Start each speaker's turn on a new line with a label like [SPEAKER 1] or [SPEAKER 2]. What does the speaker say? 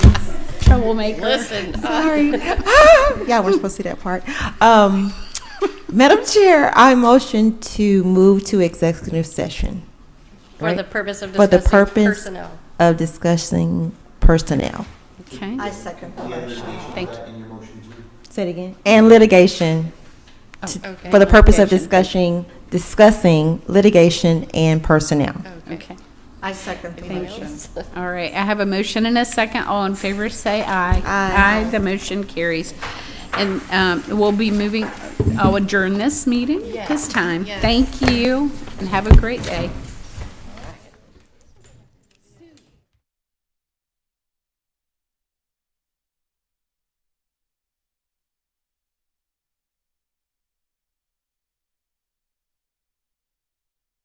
[SPEAKER 1] we'll make her.
[SPEAKER 2] Listen, uh,
[SPEAKER 3] Sorry. yeah, we're supposed to see that part. Um, Madam Chair, I motion to move to executive session
[SPEAKER 2] for the purpose of
[SPEAKER 3] for the
[SPEAKER 2] discussing
[SPEAKER 3] purpose
[SPEAKER 2] personnel.
[SPEAKER 3] of discussing personnel.
[SPEAKER 1] Okay,
[SPEAKER 4] I second the motion.
[SPEAKER 1] thank you.
[SPEAKER 3] Say it again. And litigation. to-
[SPEAKER 2] okay.
[SPEAKER 3] For the purpose of discussing,
[SPEAKER 1] Litigation.
[SPEAKER 3] discussing litigation and personnel.
[SPEAKER 1] Okay,
[SPEAKER 4] I second the
[SPEAKER 1] Thank
[SPEAKER 4] motion.
[SPEAKER 1] you. All right, I have a motion and a second. All in favor, say aye.
[SPEAKER 4] Aye.
[SPEAKER 1] the motion carries. And um, we'll be moving, I'll adjourn this meeting at this time. Thank you, and have a great day.